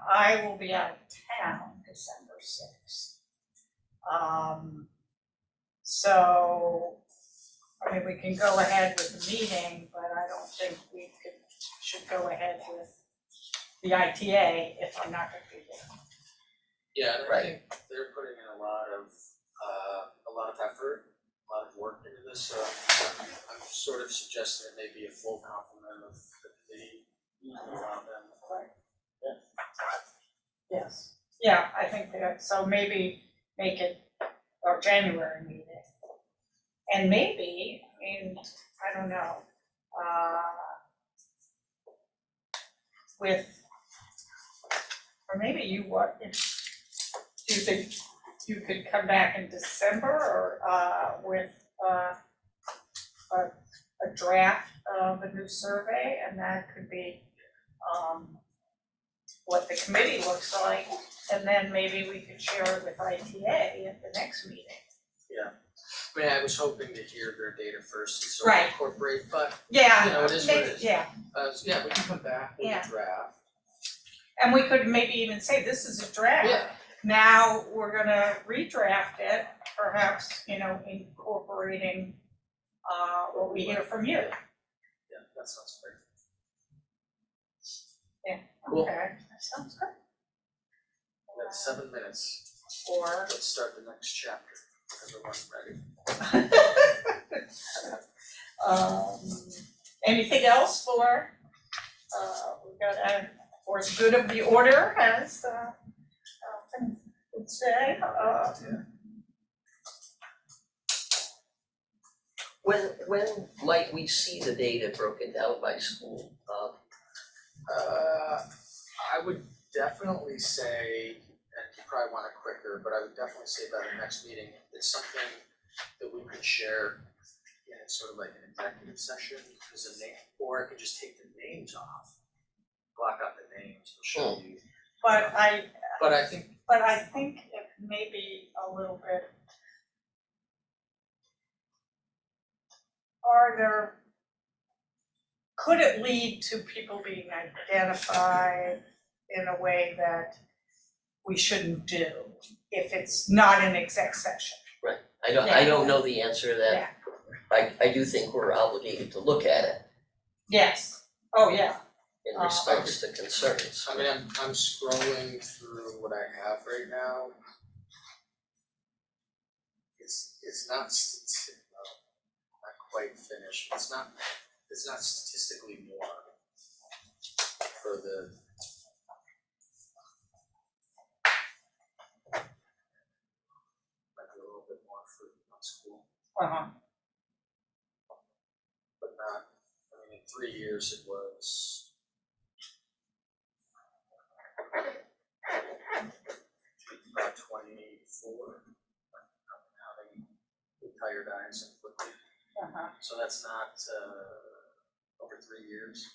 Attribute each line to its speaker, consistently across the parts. Speaker 1: I will be out of town December sixth. Um, so, I mean, we can go ahead with the meeting, but I don't think we could, should go ahead with the ITA if I'm not gonna be there.
Speaker 2: Yeah, and I
Speaker 3: Right.
Speaker 2: think they're putting in a lot of, uh, a lot of effort, a lot of work into this, so I'm- I'm sort of suggesting it may be a full complement of the committee around them.
Speaker 1: Yes. Yeah, I think that, so maybe make it our January meeting. And maybe, I mean, I don't know, uh, with, or maybe you want, if, do you think you could come back in December or, uh, with, uh, a, a draft of a new survey and that could be, um, what the committee looks like, and then maybe we could share it with ITA at the next meeting.
Speaker 2: I mean, I was hoping to hear their data first and sort of
Speaker 1: Right.
Speaker 2: incorporate, but, you
Speaker 1: Yeah,
Speaker 2: know, it is what
Speaker 1: maybe,
Speaker 2: it is.
Speaker 1: yeah,
Speaker 2: Uh, so yeah, we can come back with
Speaker 1: Yeah.
Speaker 2: a draft.
Speaker 1: and we could maybe even say, this is a draft.
Speaker 2: Yeah,
Speaker 1: Now, we're gonna redraft it, perhaps, you know, incorporating uh what we hear from you,
Speaker 2: yeah, that sounds fair. Cool.
Speaker 1: okay? That sounds good.
Speaker 2: That's seven minutes.
Speaker 1: Or,
Speaker 2: Let's start the next chapter. Everyone ready?
Speaker 1: um, anything else for, uh, we've got, uh, for as good of the order as, uh, uh, things would say, uh,
Speaker 3: When, when might we see the data broken down by school? Um,
Speaker 2: Uh, I would definitely say, and you probably want it quicker, but I would definitely say by the next meeting, it's something that we could share in sort of like an executive session, as a name, or I could just take the names off. Block out the names, and show you,
Speaker 1: but I,
Speaker 2: but I think,
Speaker 1: but I think it may be a little bit. Are there, could it lead to people being identified in a way that we shouldn't do if it's not an exec session?
Speaker 3: I don't, I don't know the answer to that. I, I do think we're obligated to look at it
Speaker 1: Yes, oh, yeah.
Speaker 3: in
Speaker 1: Uh,
Speaker 3: response to concerns.
Speaker 2: I mean, I'm, I'm scrolling through what I have right now. It's, it's not, stati- well, not quite finished, it's not, it's not statistically more for the. Might be a little bit more for not school,
Speaker 1: Uh-huh.
Speaker 2: but not, I mean, in three years it was about twenty-four. How they with tired eyes and quickly,
Speaker 1: Uh-huh.
Speaker 2: so that's not, uh, over three years.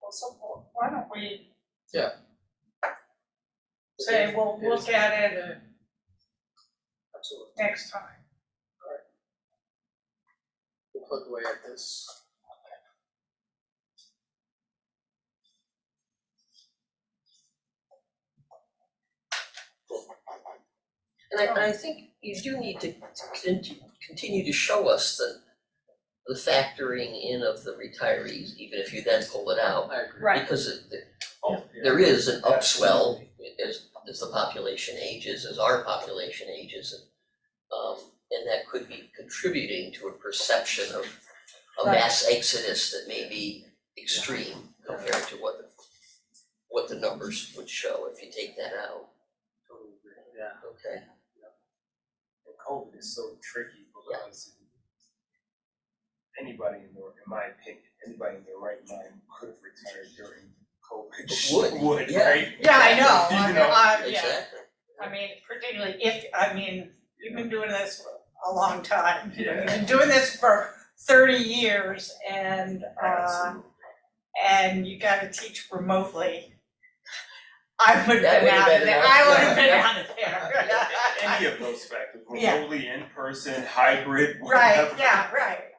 Speaker 1: Well, so wh- why don't we?
Speaker 2: Yeah.
Speaker 1: Say, we'll
Speaker 2: It is-
Speaker 1: look at it
Speaker 2: Absolutely,
Speaker 1: next time.
Speaker 2: we'll plug away at this.
Speaker 3: And I, and I think you do need to conti- continue to show us the, the factoring in of the retirees, even if you then pull it out.
Speaker 2: I agree.
Speaker 1: Right.
Speaker 3: Because it- it-
Speaker 2: Oh, yeah.
Speaker 3: there is an upswell as, as the population ages, as our population ages. and, Um, and that could be contributing to a perception of a
Speaker 1: Right.
Speaker 3: mass exodus that may be extreme compared to what the, what the numbers would show if you take that out,
Speaker 2: Totally agree, yeah.
Speaker 3: okay?
Speaker 4: And COVID is so tricky because anybody in their, in my opinion, anybody in their right mind could have retired during COVID.
Speaker 3: Would,
Speaker 4: Would,
Speaker 3: yeah.
Speaker 4: right?
Speaker 1: Yeah, I know,
Speaker 4: You
Speaker 1: I mean,
Speaker 4: know,
Speaker 1: I, yeah,
Speaker 3: Exactly.
Speaker 1: I mean, particularly if, I mean, you've been doing this for a long time, you know, you've been
Speaker 4: Yeah.
Speaker 1: doing this for thirty years and, uh,
Speaker 4: Absolutely.
Speaker 1: and you gotta teach remotely. I would have
Speaker 3: That
Speaker 1: been
Speaker 3: would've
Speaker 1: out of
Speaker 3: been
Speaker 1: there,
Speaker 3: out.
Speaker 1: I would have been
Speaker 3: Yeah.
Speaker 1: out of there.
Speaker 4: Any of those factors,
Speaker 1: Yeah.
Speaker 4: remotely, in person, hybrid,
Speaker 1: Right,
Speaker 4: whatever.
Speaker 1: yeah, right,